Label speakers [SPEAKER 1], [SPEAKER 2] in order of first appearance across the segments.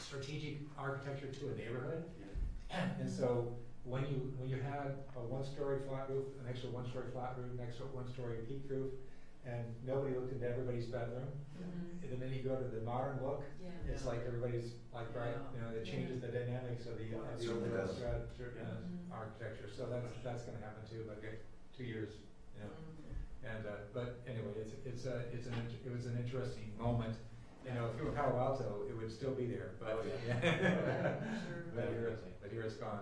[SPEAKER 1] strategic architecture to a neighborhood. And so when you, when you had a one-story flat roof, an extra one-story flat roof, an extra one-story peak roof, and nobody looked into everybody's bedroom,
[SPEAKER 2] Mhm.
[SPEAKER 1] and then you go to the modern look,
[SPEAKER 2] Yeah.
[SPEAKER 1] it's like everybody's like, right, you know, it changes the dynamics of the, of the
[SPEAKER 3] Certainly
[SPEAKER 1] overall
[SPEAKER 3] does.
[SPEAKER 1] strategy,
[SPEAKER 3] Yeah.
[SPEAKER 2] Mhm.
[SPEAKER 1] uh, architecture, so that's, that's gonna happen too, but okay, two years, you know. And, uh, but anyway, it's, it's a, it's an, int- it was an interesting moment. You know, if you were Palo Alto, it would still be there, but.
[SPEAKER 3] Oh,
[SPEAKER 2] yeah. Sure.
[SPEAKER 1] But here, but here it's gone.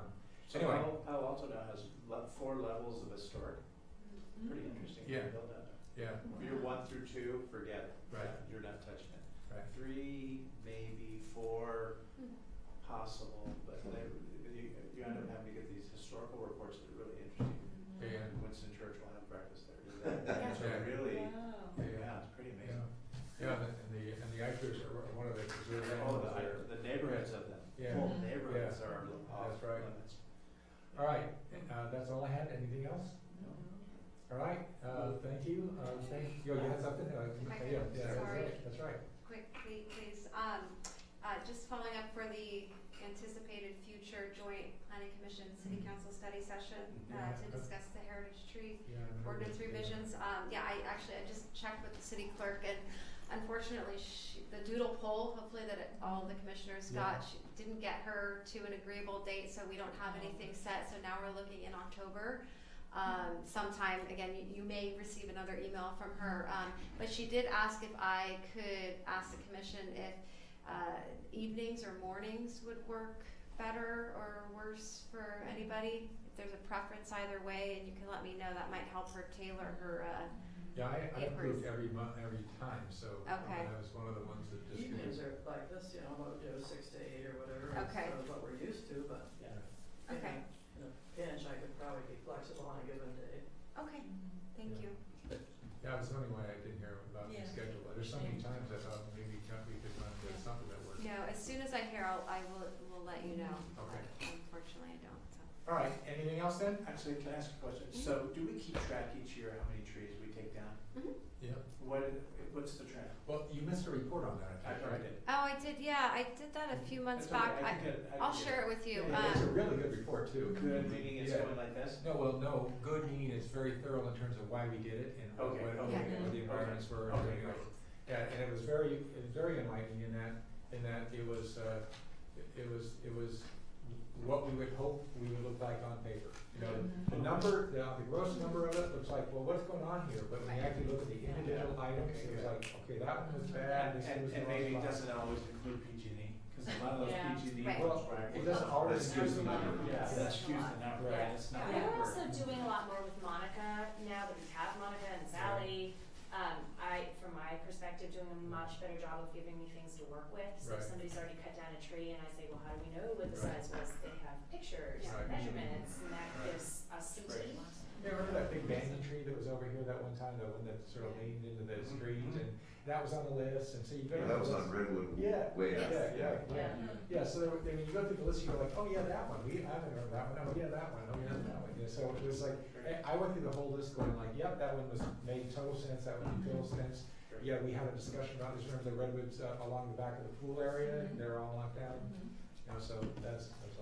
[SPEAKER 3] So
[SPEAKER 1] Anyway.
[SPEAKER 3] Palo Palo Alto now has le- four levels of historic,
[SPEAKER 4] Mm-hmm.
[SPEAKER 2] Mhm.
[SPEAKER 3] pretty interesting.
[SPEAKER 1] Yeah.
[SPEAKER 3] Build that.
[SPEAKER 1] Yeah,
[SPEAKER 3] Year one through two, forget it.
[SPEAKER 1] Right.
[SPEAKER 3] You're not touching it.
[SPEAKER 1] right.
[SPEAKER 3] Three, maybe four, possible, but they, you, you end up having to get these historical reports that are really interesting.
[SPEAKER 2] Mhm.
[SPEAKER 1] Yeah,
[SPEAKER 3] Winston Churchill had breakfast there. did that.
[SPEAKER 2] Yeah.
[SPEAKER 3] It's really,
[SPEAKER 2] Wow.
[SPEAKER 1] Yeah.
[SPEAKER 3] yeah, it's pretty
[SPEAKER 1] yeah.
[SPEAKER 3] amazing.
[SPEAKER 1] Yeah, and the- and the, and the actors are one of the preserved
[SPEAKER 3] All
[SPEAKER 1] animals
[SPEAKER 3] the,
[SPEAKER 1] there.
[SPEAKER 3] the neighborhoods of them,
[SPEAKER 1] Yeah.
[SPEAKER 3] whole
[SPEAKER 2] Mhm.
[SPEAKER 3] neighborhoods are
[SPEAKER 1] That's
[SPEAKER 3] off
[SPEAKER 1] right.
[SPEAKER 3] limits.
[SPEAKER 1] All right, uh, that's all I had. Anything else? All right, uh, thank you. Uh, thank, you you had something? Uh, yeah, yeah, that's
[SPEAKER 5] Sorry.
[SPEAKER 1] right, that's right.
[SPEAKER 5] Quickly, please, um, uh, just following up for the anticipated future joint planning commission, city council study session, uh, to
[SPEAKER 1] Yeah.
[SPEAKER 5] discuss the heritage tree
[SPEAKER 1] Yeah, I remember.
[SPEAKER 5] ordinance
[SPEAKER 1] Yeah.
[SPEAKER 5] revisions, um, yeah, I actually, I just checked with the city clerk and unfortunately, she, the doodle poll, hopefully that it- all the commissioners
[SPEAKER 1] Yeah.
[SPEAKER 5] got, she didn't get her to an agreeable date, so we don't have anything set, so now we're looking in October. Um, sometime, again, you, you may receive another email from her, um, but she did ask if I could ask the commission if, uh, evenings or mornings would work better or worse for anybody. If there's a preference either way, and you can let me know, that might help her tailor her, uh,
[SPEAKER 1] Yeah, I, I
[SPEAKER 5] It
[SPEAKER 1] approved
[SPEAKER 5] was-
[SPEAKER 1] every month, every time, so uh,
[SPEAKER 5] Okay.
[SPEAKER 1] that was one of the ones that just.
[SPEAKER 2] Evenings are like this, you know, about, you know, six to eight or whatever, is
[SPEAKER 5] Okay.
[SPEAKER 2] sort of what we're used to, but,
[SPEAKER 3] Yeah.
[SPEAKER 2] you
[SPEAKER 5] Okay.
[SPEAKER 2] know, in a pinch, I could probably be flexible on a given day.
[SPEAKER 5] okay, thank
[SPEAKER 1] Yeah.
[SPEAKER 5] you.
[SPEAKER 1] Yeah, it was only why I didn't hear about the
[SPEAKER 2] Yeah.
[SPEAKER 1] schedule. There's so many
[SPEAKER 2] Yeah.
[SPEAKER 1] times I thought maybe can't we could run with
[SPEAKER 2] Yeah.
[SPEAKER 1] something that works.
[SPEAKER 5] No, as soon as I hear, I'll, I will, will let you know.
[SPEAKER 1] Okay.
[SPEAKER 5] but Unfortunately, I don't, so.
[SPEAKER 1] All right, anything else then?
[SPEAKER 3] Actually, can I ask a question? So do we keep track each year how many trees we take down?
[SPEAKER 1] Yeah.
[SPEAKER 3] What, what's the trend?
[SPEAKER 1] Well, you missed a report on that, I
[SPEAKER 3] I
[SPEAKER 1] think,
[SPEAKER 3] probably
[SPEAKER 1] right?
[SPEAKER 3] did.
[SPEAKER 5] Oh, I did, yeah, I did that a few months
[SPEAKER 3] That's okay,
[SPEAKER 5] back.
[SPEAKER 3] I can
[SPEAKER 5] I,
[SPEAKER 3] get it, I
[SPEAKER 5] I'll
[SPEAKER 3] can get
[SPEAKER 5] share it with you.
[SPEAKER 3] Yeah,
[SPEAKER 1] It's a
[SPEAKER 5] Um,
[SPEAKER 1] really good report
[SPEAKER 3] it.
[SPEAKER 1] too.
[SPEAKER 3] Good, meaning it's
[SPEAKER 1] Yeah.
[SPEAKER 3] going like this?
[SPEAKER 1] No, well, no, good meaning it's very thorough in terms of why we did it and what,
[SPEAKER 3] Okay,
[SPEAKER 1] what,
[SPEAKER 3] okay,
[SPEAKER 1] what the
[SPEAKER 3] okay,
[SPEAKER 1] environments were and
[SPEAKER 3] okay,
[SPEAKER 1] everything else.
[SPEAKER 3] great.
[SPEAKER 1] Yeah, and it was very, it was very enlightening in that, in that it was, uh, it- it was, it was what we would hope we would look like on paper. You know, the
[SPEAKER 3] Mhm.
[SPEAKER 1] number, the, the gross number of it looks like, well, what's going on here? But when you actually look at the individual items, it was
[SPEAKER 3] Yeah.
[SPEAKER 1] like, okay, that one was bad, this one
[SPEAKER 3] And,
[SPEAKER 1] was.
[SPEAKER 3] and
[SPEAKER 1] the wrong
[SPEAKER 3] maybe it
[SPEAKER 1] spot.
[SPEAKER 3] doesn't always include PG and E, because a lot of those
[SPEAKER 2] Yeah.
[SPEAKER 3] PG and E
[SPEAKER 5] Right.
[SPEAKER 3] ones,
[SPEAKER 1] Well,
[SPEAKER 3] right?
[SPEAKER 1] it doesn't always excuse the number.
[SPEAKER 3] Yeah,
[SPEAKER 1] It's
[SPEAKER 3] that
[SPEAKER 4] a
[SPEAKER 3] skews
[SPEAKER 4] lot.
[SPEAKER 3] the number,
[SPEAKER 1] Right.
[SPEAKER 3] and it's not.
[SPEAKER 4] Yeah,
[SPEAKER 3] accurate.
[SPEAKER 4] we're also doing a lot more with Monica now that we have Monica and Sally. Um, I, from my perspective, doing a much better job of giving me things to work with. So
[SPEAKER 1] Right.
[SPEAKER 4] if somebody's already cut down a tree and I say, well, how do we know what the
[SPEAKER 1] Right.
[SPEAKER 4] size was? They have pictures,
[SPEAKER 1] Yeah. Right.
[SPEAKER 4] and measurements, and that
[SPEAKER 3] Right.
[SPEAKER 4] gives us some
[SPEAKER 3] Right.
[SPEAKER 4] team.
[SPEAKER 1] Yeah, remember that big banyan tree that was over here that one time, the one that sort of leaned into the street and that was on the list and so you go. to
[SPEAKER 6] Mm-hmm. Yeah, that
[SPEAKER 1] the
[SPEAKER 6] was
[SPEAKER 1] list.
[SPEAKER 6] on Redwood
[SPEAKER 1] Yeah,
[SPEAKER 6] way
[SPEAKER 1] Yeah,
[SPEAKER 6] up.
[SPEAKER 1] yeah, yeah,
[SPEAKER 2] Yeah.
[SPEAKER 1] yeah, so there, were- I mean, you go through the list, you go like, oh yeah, that one, we, I remember that one, oh yeah, that one, oh yeah, that one, yeah, so it was like, I, I went through the whole list going like, yep, that one was, made total sense, that one made total
[SPEAKER 6] Mm-hmm.
[SPEAKER 1] sense.
[SPEAKER 3] Right.
[SPEAKER 1] Yeah, we had a discussion about this, remember the redwoods uh, along the back of the pool area, they're all knocked down, you know, so that's, that's all.
[SPEAKER 3] Um,